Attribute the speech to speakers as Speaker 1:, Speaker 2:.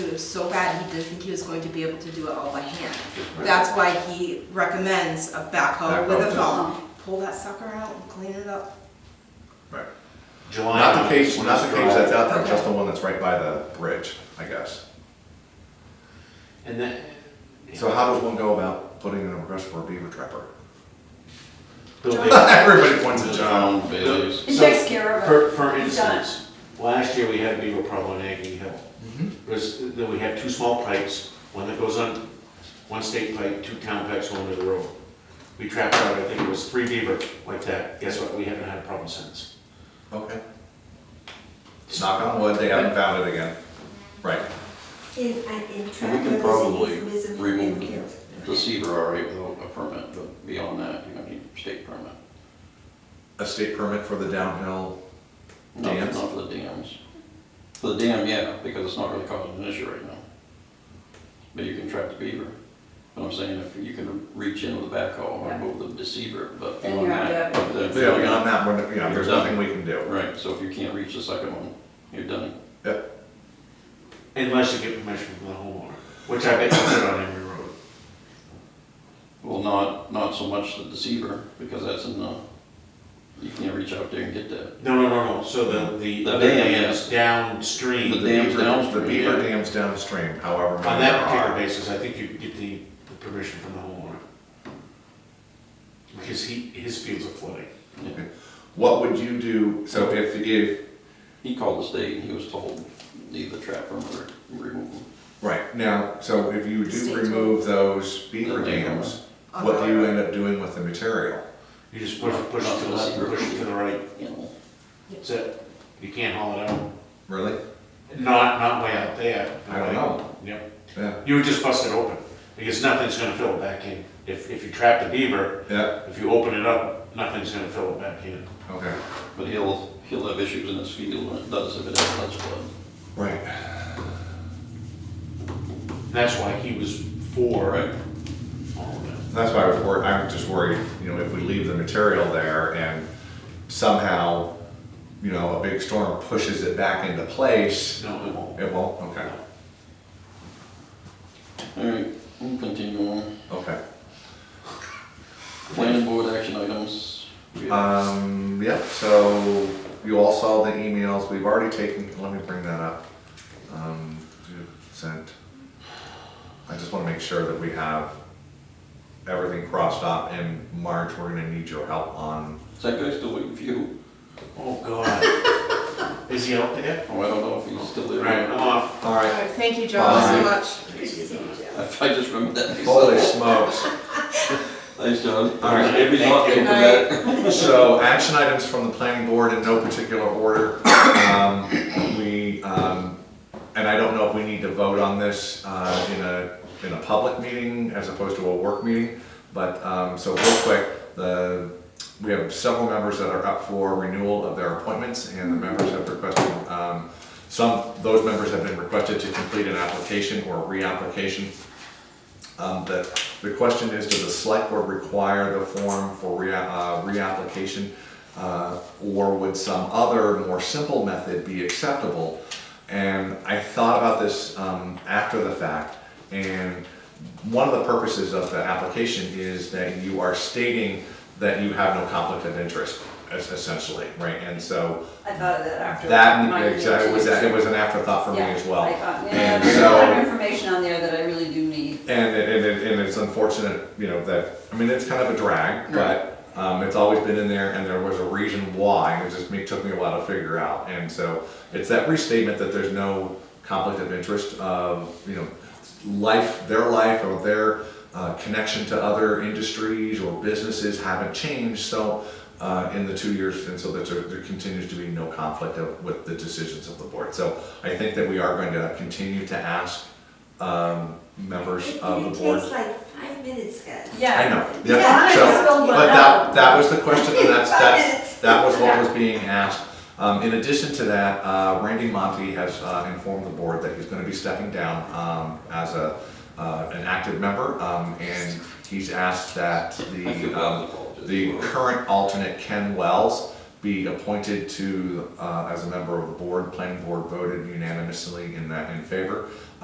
Speaker 1: was so bad, he didn't think he was going to be able to do it all by hand. That's why he recommends a backhoe with a
Speaker 2: Backhoe.
Speaker 1: phone. Pull that sucker out and clean it up.
Speaker 2: Right.
Speaker 3: July.
Speaker 2: Not the page,
Speaker 3: when
Speaker 2: not
Speaker 3: it's
Speaker 2: the page that's
Speaker 3: dry.
Speaker 2: out there, just the one that's right by the bridge, I guess.
Speaker 3: And then.
Speaker 2: So how does one go about putting in a request for a beaver trapper?
Speaker 3: Bill
Speaker 4: John.
Speaker 3: Bailey-
Speaker 2: Everybody points at John.
Speaker 5: John Bailey's.
Speaker 4: It
Speaker 3: So,
Speaker 4: takes care of it.
Speaker 3: For, for
Speaker 4: It's
Speaker 3: instance, last year we had a beaver problem on Aggie Hill. Was, that we had two small pipes, one that goes on, one state pipe, two town pipes going to the road. We trapped out, I think it was three beaver like that. Guess what? We haven't had a problem since.
Speaker 2: Okay. Knock on wood, they haven't found it again. Right.
Speaker 6: In, in
Speaker 5: And we
Speaker 6: traffic,
Speaker 5: can probably
Speaker 6: this is
Speaker 5: remove
Speaker 6: misinformed.
Speaker 5: the cedar already without a permit, but beyond that, you know, need a state permit.
Speaker 2: A state permit for the downhill,
Speaker 5: Not-
Speaker 2: Dams?
Speaker 5: Not for the dams. For the dam, yeah, because it's not really causing an issue right now. But you can trap the beaver. But I'm saying if you can reach in with a backhoe and remove the deceiver, but
Speaker 4: Then
Speaker 5: beyond
Speaker 4: you're
Speaker 5: that.
Speaker 4: out of
Speaker 5: then-
Speaker 2: yeah, beyond that, we're, you know, there's nothing we can do.
Speaker 5: Right, so if you can't reach the second one, you're done.
Speaker 2: Yep.
Speaker 3: Unless you get permission from the homeowner, which I bet you did on every road.
Speaker 5: Well, not, not so much the deceiver, because that's in the, you can't reach out there and get that.
Speaker 3: No, no, no, no. So the, the
Speaker 5: The
Speaker 3: other
Speaker 5: dam,
Speaker 3: dam is
Speaker 5: The
Speaker 3: downstream.
Speaker 5: dam's
Speaker 2: Beaver-
Speaker 5: downstream,
Speaker 2: The beaver
Speaker 5: yeah.
Speaker 2: dam's downstream, however.
Speaker 3: On
Speaker 2: many
Speaker 3: that
Speaker 2: there
Speaker 3: particular
Speaker 2: are.
Speaker 3: basis, I think you get the the permission from the homeowner. Because he, his fields are flooding.
Speaker 5: Yeah.
Speaker 2: What would you do, so if, if,
Speaker 5: He called the state and he was told, leave the trap room or remove them.
Speaker 2: right, now, so if you do
Speaker 1: State.
Speaker 2: remove those beaver
Speaker 5: The dam.
Speaker 2: dams, what do you end up doing with the material?
Speaker 3: You just push, push it to the left, and push it to the right,
Speaker 5: You know,
Speaker 3: that's it. You can't haul it out.
Speaker 2: Really?
Speaker 3: Not, not way out there.
Speaker 2: I don't know.
Speaker 3: Yep.
Speaker 2: Yeah,
Speaker 3: You would just bust it open, because nothing's gonna fill it back in. If, if you trap the beaver,
Speaker 2: yeah,
Speaker 3: if you open it up, nothing's gonna fill it back in.
Speaker 2: okay.
Speaker 5: But he'll, he'll have issues in his field when it does, if it ever does flood.
Speaker 2: Right.
Speaker 3: That's why he was for
Speaker 5: Right.
Speaker 3: all of that.
Speaker 2: That's why I was worried, I'm just worried, you know, if we leave the material there and somehow, you know, a big storm pushes it back into place,
Speaker 3: No, it won't.
Speaker 2: it won't, okay,
Speaker 5: All right, we'll continue on.
Speaker 2: okay.
Speaker 5: Planning board action items. We have-
Speaker 2: Um, yeah, so you all saw the emails, we've already taken, let me bring that up. Um, you sent, I just wanna make sure that we have everything crossed off in March, we're gonna need your help on,
Speaker 5: Is that guy still waiting for you?
Speaker 3: Oh, God. Is he out there?
Speaker 5: Oh, I don't know if he's still there.
Speaker 3: Right, I'm off.
Speaker 2: alright,
Speaker 1: Alright, Thank you, John, so
Speaker 2: Bye.
Speaker 1: much.
Speaker 5: I I just remembered that.
Speaker 2: holy smokes.
Speaker 5: Thanks, John.
Speaker 2: All right.
Speaker 5: Every lot
Speaker 3: Thank you.
Speaker 5: came from that.
Speaker 2: So, action items from the planning board in no particular order. Um, We, um, and I don't know if we need to vote on this uh, in a, in a public meeting as opposed to a work meeting, but, um, so real quick, the, we have several members that are up for renewal of their appointments, and the members have requested, um, some, those members have been requested to complete an application or reapplication um, the, the question is, does the select board require the form for rea, uh, reapplication? Uh, or would some other more simple method be acceptable? And I thought about this, um, after the fact, and one of the purposes of the application is that you are stating that you have no conflict of interest, es- essentially, right? And so,
Speaker 4: I thought of that after.
Speaker 2: that,
Speaker 4: my
Speaker 2: exactly, was, that- it
Speaker 4: meeting.
Speaker 2: was an afterthought for me
Speaker 4: Yeah,
Speaker 2: as well.
Speaker 4: I thought, yeah,
Speaker 2: And
Speaker 4: there's a
Speaker 2: so-
Speaker 4: lot of information on there that I really do need.
Speaker 2: and it, and it, and it's unfortunate, you know, that, I mean, it's kind of a drag, but, um, it's always been in there and there was a reason why, and it just me, took me a while to figure out. And so it's that restatement that there's no conflict of interest of, you know, life, their life or their, uh, connection to other industries or businesses haven't changed, so, uh, in the two years, and so that there, there continues to be no conflict of, with the decisions of the board. So I think that we are going to continue to ask, um, members
Speaker 6: It-
Speaker 2: of
Speaker 6: It
Speaker 2: the board.
Speaker 6: takes like five minutes, guys.
Speaker 2: I know,
Speaker 4: Yeah,
Speaker 2: yeah,
Speaker 4: I just
Speaker 2: so,
Speaker 4: filled one
Speaker 2: but that,
Speaker 4: out.
Speaker 2: that was the question, and that's,
Speaker 6: Five
Speaker 2: that's,
Speaker 6: minutes.
Speaker 2: that was what was being asked. Um, in addition to that, uh, Randy Monty has, uh, informed the board that he's gonna be stepping down, um, as a, uh, an active member, um, and he's asked that
Speaker 5: I feel
Speaker 2: the,
Speaker 5: bad
Speaker 2: um,
Speaker 5: for
Speaker 2: the
Speaker 5: Paul.
Speaker 2: current alternate Ken Wells be appointed to, uh, as a member of the board, planning board voted unanimously in that, in favor.